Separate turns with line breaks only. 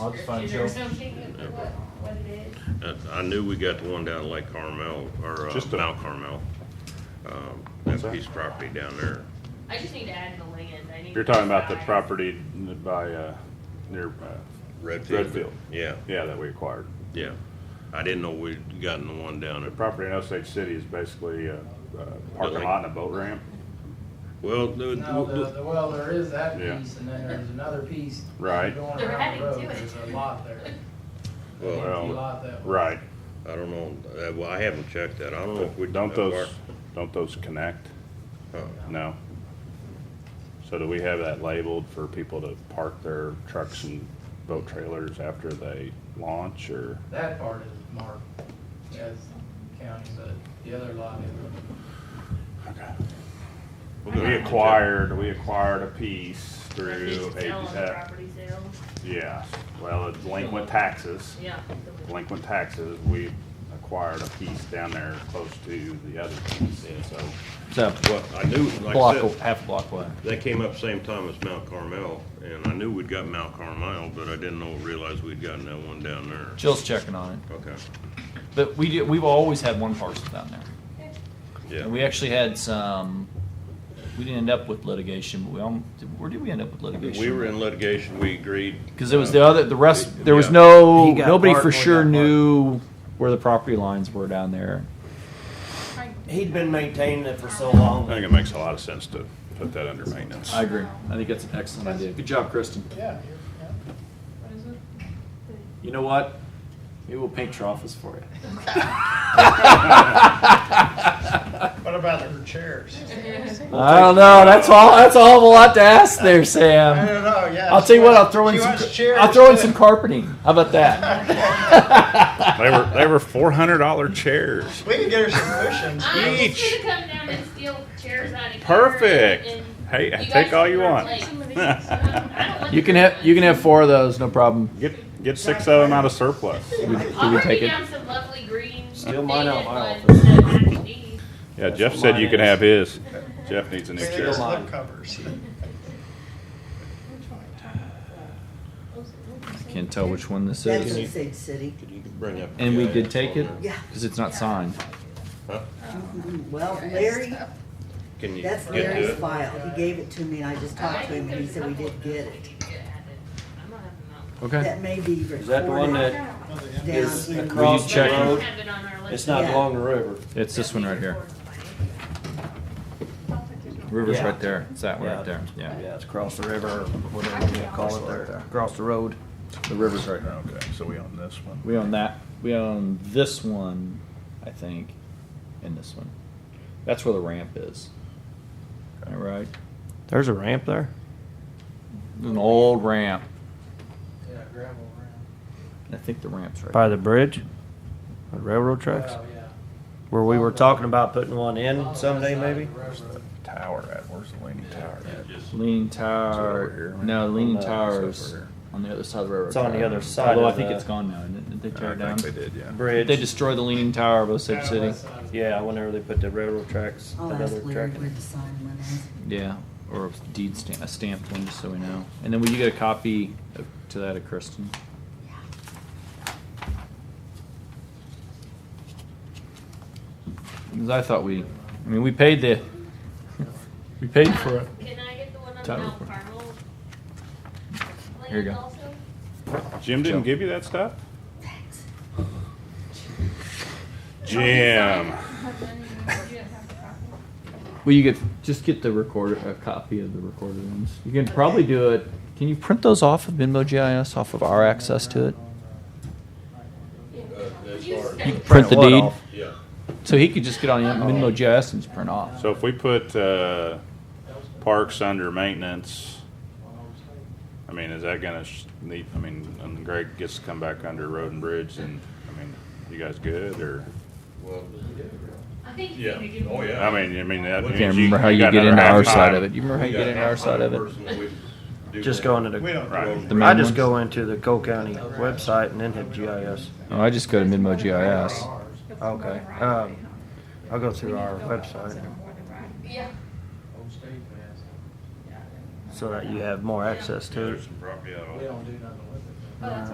I'll just find
Or
Cheryl.
something, what, what it is.
Uh, I knew we got the one down at Lake Carmel, or uh,
Just a-
Mount Carmel. Um,
What's
That
that?
piece of property down there.
I just need to add the land, I need.
You're talking about the
size.
property n- by, uh, near, uh, Redfield.
Yeah,
yeah, that we acquired.
yeah. I didn't know we'd gotten the one down
The
at,
property in Osage City is basically a a parking
Building.
lot and a boat ramp.
well, the-
No, the,
the-
the, well, there is that
Yeah.
piece, and then there's another piece.
Right.
going
They're
around the
adding to
road.
it.
There's a lot there.
well,
Well,
Empty lot that way.
Right,
I don't know, Uh, well, I haven't checked Oh, that. I don't know if we.
but don't those, don't those connect?
Uh,
No. So do we have that labeled for people to park their trucks and boat trailers after they launch or?
That part is marked as county, but the other lot is.
Okay.
we'll go
We
have to check.
acquired, we acquired a piece
I think
through,
it's
a-
sell on the
uh,
property sale,
yeah, well, delinquent taxes.
yeah.
delinquent taxes, we acquired a piece down there close to the other piece, and so.
So,
Well, I knew, like
block,
I
a-
said,
half a block away.
they came up same time as Mount Carmel, and I knew we'd got Mount Carmel, but I didn't know, realize we'd gotten that one down there.
Jill's checking on it.
Okay,
But we do, we've always had one parcel down there.
yeah.
And we actually had some, we didn't end up with litigation, but we, al- where did we end up with litigation?
We were in litigation, we agreed. Uh,
Cause it was the other, the rest, there was
Yeah.
no,
He got
nobody
part,
for
we
sure
got part.
knew where the property lines were down there.
He'd been maintaining it for so long.
I think it makes a lot of sense to put that under maintenance.
I agree. I think that's an excellent idea. Good job, Kristen.
Yeah.
You know what? Maybe we'll paint your office for you.
What about her chairs?
I don't know. That's all. That's a whole lot to ask there, Sam.
know, yeah.
I'll tell you what. I'll throw in some. I'll throw in some carpeting. How about that?
They were, they were four hundred dollar chairs.
We can get her some cushions.
I'm
Each.
just gonna come down and steal chairs out of here.
Perfect.
and-
Hey,
and
take
guys
all you
can
want.
play. I don't want
You can
the
have. You can have
green
four of those. No problem.
Get, get six of them out of surplus.
ones.
Can we
I'll bring
take
you
it?
down some lovely green.
Steal mine out of my
faded ones that match these.
Yeah, Jeff said you could have his. Jeff needs a new chair.
covers.
Can't tell which one this
That's
is.
Osage City.
Could you bring up?
And we did take it
Yeah.
because it's not signed.
Mhm. Well, Larry,
Can you get
that's
to
Larry's
it?
file. He gave it to me and I just talked to him and he said we didn't get it.
Okay.
That may be
Is that the one
recorded
that is
down.
you
across the
check it?
road? It's
It's
not
Yeah.
along the river.
It's this one right here. River's
Yeah.
right there. It's that one right there. Yeah.
Yeah, it's across the river, or whatever you wanna call it there.
Across the road.
The river's right here, okay, so we own this one.
We own that. We own this one, I think, and this one. That's where the ramp is. All right.
There's a ramp there?
An old ramp.
Yeah, gravel around.
I think the ramp's right.
By the bridge? The Railroad tracks?
Well, yeah.
Where we were talking about putting one in someday maybe?
Tower at, where's the leaning tower at?
Leaning
It's
Tower.
over here.
No, Leaning
No, it's
Towers
over here.
on the other side of the railroad.
It's on the
track.
other side
Although
of
I think
the-
it's gone now. Didn't did they tear it down?
did, yeah.
Did they
Bridge,
destroy the Leaning Tower of Osage
Yeah,
City?
west side.
yeah, whenever they put the railroad tracks,
I'll ask
another
Larry
track.
where the sign went in.
Yeah, or a deed stamp, a stamped one, just so we know. And then will you get a copy of, to that of Kristen? Because I thought we, I mean, we paid the, we paid for it.
Can I get the one on
Title
Mount
report.
Carmel?
Here you
land
go.
also?
Jim didn't give you that stuff?
Thanks.
Jim.
Well, you get, just get the recorder, a copy of the recorded ones. You can probably do it, can you print those off of Minmo GIS, off of our access to it? Print the
what
deed?
off?
Yeah.
So he could just get on Minmo GIS and just print off.
Oh. So if we put, uh, parks under maintenance, I mean, is that gonna sh- need, I mean, and Greg gets to come back under road and bridge and, I mean, you guys good or?
Well,
I think you
Yeah.
need to give
Oh,
me-
yeah.
I mean, I mean, that.
Can't
means
Can't remember how
you
you
got
get
another
into our
half
side
time.
of it. You remember how you get into our side of it?
Just go into the,
Right.
The main
I just
ones?
go into the Cole County website and then hit GIS.
Oh, I just go to Minmo GIS.
Okay, um, I'll go through our website
Yeah.
Old state pass.
so that you have more access to it.
There's some property out on-
We don't do nothing with it.
Oh, that's